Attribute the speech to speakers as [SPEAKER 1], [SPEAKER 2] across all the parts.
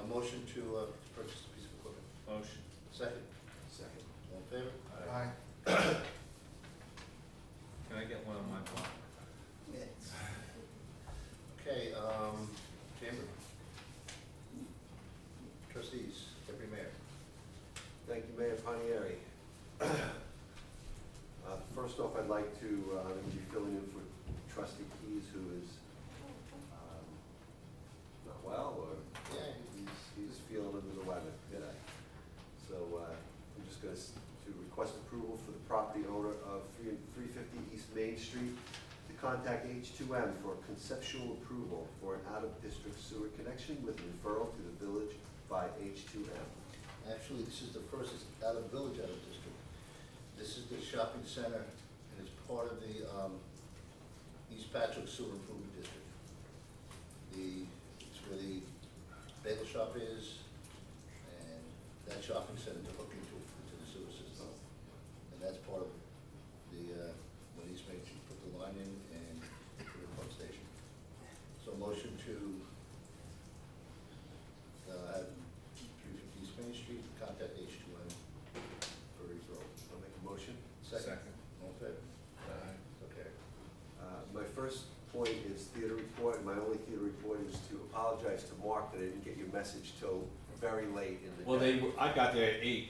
[SPEAKER 1] A motion to uh, to purchase a piece of equipment.
[SPEAKER 2] Motion.
[SPEAKER 1] Second,
[SPEAKER 3] Second.
[SPEAKER 1] all in favor?
[SPEAKER 3] Aye.
[SPEAKER 2] Can I get one on my block?
[SPEAKER 1] Yes. Okay, um, Chamber. Trustees, Deputy Mayor.
[SPEAKER 3] Thank you, Mayor Panieri. Uh, First off, I'd like to, uh, I'm going to be filling in for trustee Keys, who is um, not well, or
[SPEAKER 1] Yeah.
[SPEAKER 3] he's, he's feeling under the weather today. So uh, I'm just going to request approval for the property owner of 3 350 East Main Street to contact H2M for conceptual approval for an out-of-district sewer connection with referral to the village by H2M.
[SPEAKER 1] Actually, this is the first, it's out of village, out of district. This is the shopping center, and it's part of the um, East Patrick Sewer Improvement District. The, it's where the bagel shop is, and that shopping center to hook into, into the sewer system. And that's part of the, uh, when East Main Street put the line in and put a pump station. So motion to uh, 350 East Main Street, contact H2M for referral.
[SPEAKER 3] I'll make a motion.
[SPEAKER 2] Second.
[SPEAKER 1] All in favor?
[SPEAKER 2] Aye.
[SPEAKER 1] Okay.
[SPEAKER 3] Uh, My first point is theater report, and my only theater report is to apologize to Mark that I didn't get your message till very late in the day.
[SPEAKER 4] Well, they, were- I got there at eight,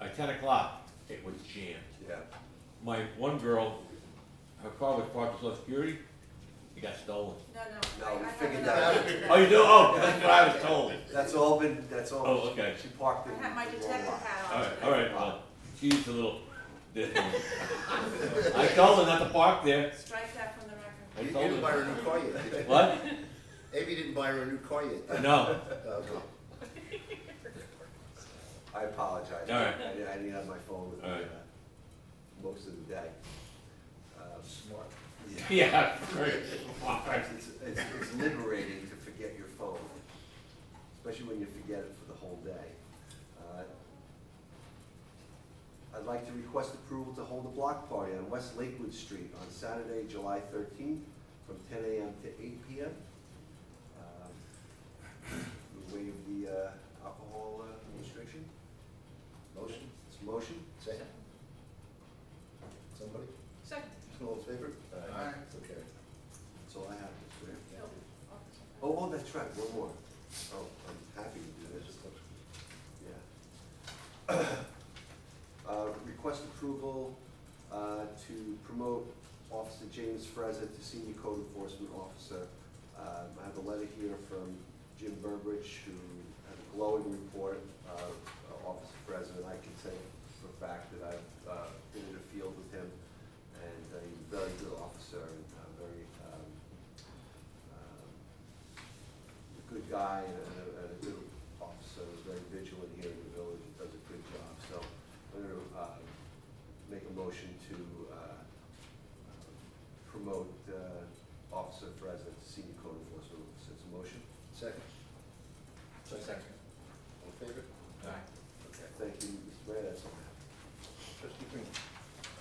[SPEAKER 4] at ten o'clock, it was jammed.
[SPEAKER 3] Yeah,
[SPEAKER 4] My one girl, her car was parked at Social Security, it got stolen.
[SPEAKER 5] No, no.
[SPEAKER 3] No,
[SPEAKER 5] I-
[SPEAKER 3] we
[SPEAKER 5] I have
[SPEAKER 3] figured
[SPEAKER 5] another
[SPEAKER 3] that out.
[SPEAKER 5] answer.
[SPEAKER 4] Oh, you do, oh, that's what I was told.
[SPEAKER 3] that's all been, that's all.
[SPEAKER 4] Oh, okay.
[SPEAKER 3] She parked
[SPEAKER 5] I
[SPEAKER 3] in.
[SPEAKER 5] have my
[SPEAKER 3] the wrong
[SPEAKER 5] detective
[SPEAKER 3] lot.
[SPEAKER 5] hat on.
[SPEAKER 4] All right,
[SPEAKER 5] today.
[SPEAKER 4] all right, well, she's a little, different. I told her not to park there,
[SPEAKER 5] Strike that from the record.
[SPEAKER 4] I
[SPEAKER 1] You you
[SPEAKER 4] told
[SPEAKER 1] didn't buy her
[SPEAKER 4] her.
[SPEAKER 1] a new car yet, did you?
[SPEAKER 4] What?
[SPEAKER 1] Amy didn't buy her a new car yet. uh, did you?
[SPEAKER 4] No,
[SPEAKER 1] Okay.
[SPEAKER 3] I apologize.
[SPEAKER 4] All right.
[SPEAKER 3] I didn't, I didn't have my phone with me,
[SPEAKER 4] All right.
[SPEAKER 3] uh, most of the day. Uh,
[SPEAKER 1] Smart.
[SPEAKER 3] yeah.
[SPEAKER 4] yeah, great.
[SPEAKER 3] It's, it's it's liberating to forget your phone, especially when you forget it for the whole day. Uh, I'd like to request approval to hold a block party on West Lakewood Street on Saturday, July thirteenth, from ten AM to eight PM. Um, We waive the uh, alcohol uh, restriction.
[SPEAKER 1] Motion,
[SPEAKER 3] It's a motion.
[SPEAKER 1] second? Somebody?
[SPEAKER 5] Second.
[SPEAKER 1] All in favor?
[SPEAKER 2] Aye.
[SPEAKER 1] So carried.
[SPEAKER 3] That's all I have. Mr. Mayor.
[SPEAKER 1] Thank you.
[SPEAKER 3] Oh, oh, that's right, one more. Oh, I'm happy to do
[SPEAKER 1] That's
[SPEAKER 3] this.
[SPEAKER 1] just-
[SPEAKER 3] Yeah. Uh, Request approval uh, to promote Officer James Frezza to Senior Code Enforcement Officer. Um, I have a letter here from Jim Burbridge, who had a glowing report of uh, Officer Frezza, and I can say for a fact that I've uh, been in the field with him, and uh, he's a very good officer and uh, very um, um, a good guy and a, and a good officer, is very vigilant here in the village, and does a good job. So I'm gonna, uh, make a motion to, uh, promote, uh, Officer Frezza to senior code enforcement officer. It's a motion.
[SPEAKER 1] Second?
[SPEAKER 2] Second.
[SPEAKER 1] All in favor?
[SPEAKER 2] Aye.
[SPEAKER 1] Okay.
[SPEAKER 3] Thank you, Mr. Mayor, that's all I have.
[SPEAKER 1] Trustee Green?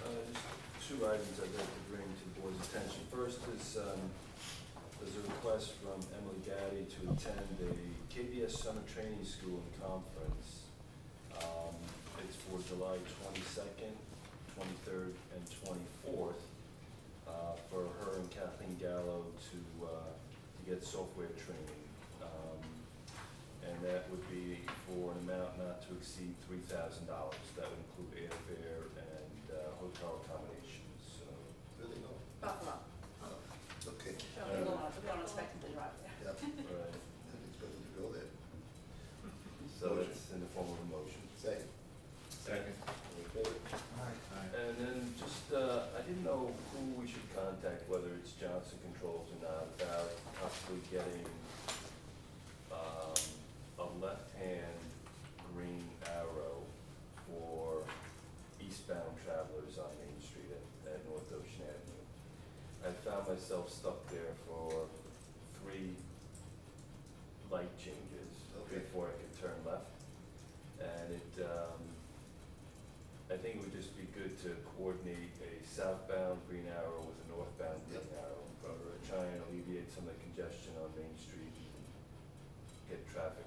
[SPEAKER 6] Uh, just Two items I'd like to bring to the board's attention. First is, um, there's a request from Emily Gaddy to attend the KBS Summer Training School and Conference. Um, It's for July twenty-second, twenty-third, and twenty-fourth, uh, for her and Kathleen Gallo to, uh, to get software training. Um, and that would be for an amount not to exceed three thousand dollars. That would include airfare and uh, hotel accommodations, so.
[SPEAKER 1] Really, no?
[SPEAKER 5] Buffalo.
[SPEAKER 1] Oh, Okay.
[SPEAKER 5] Show me the law. We don't expect them to drive there.
[SPEAKER 1] Yeah, didn't
[SPEAKER 6] right.
[SPEAKER 1] expect them to go there.
[SPEAKER 6] So it's in the form of a motion.
[SPEAKER 1] Second?
[SPEAKER 2] Second.
[SPEAKER 1] All in favor?
[SPEAKER 2] Aye.
[SPEAKER 6] And then just, uh, I didn't know who we should contact, whether it's Johnson Controls or not, about possibly getting um, a left-hand green arrow for eastbound travelers on Main Street at, at North Ocean Avenue. I found myself stuck there for three light changes
[SPEAKER 1] Okay.
[SPEAKER 6] before I could turn left. And it, um, I think it would just be good to coordinate a southbound green arrow with a northbound green arrow, or try and alleviate some of the congestion on Main Street, and get traffic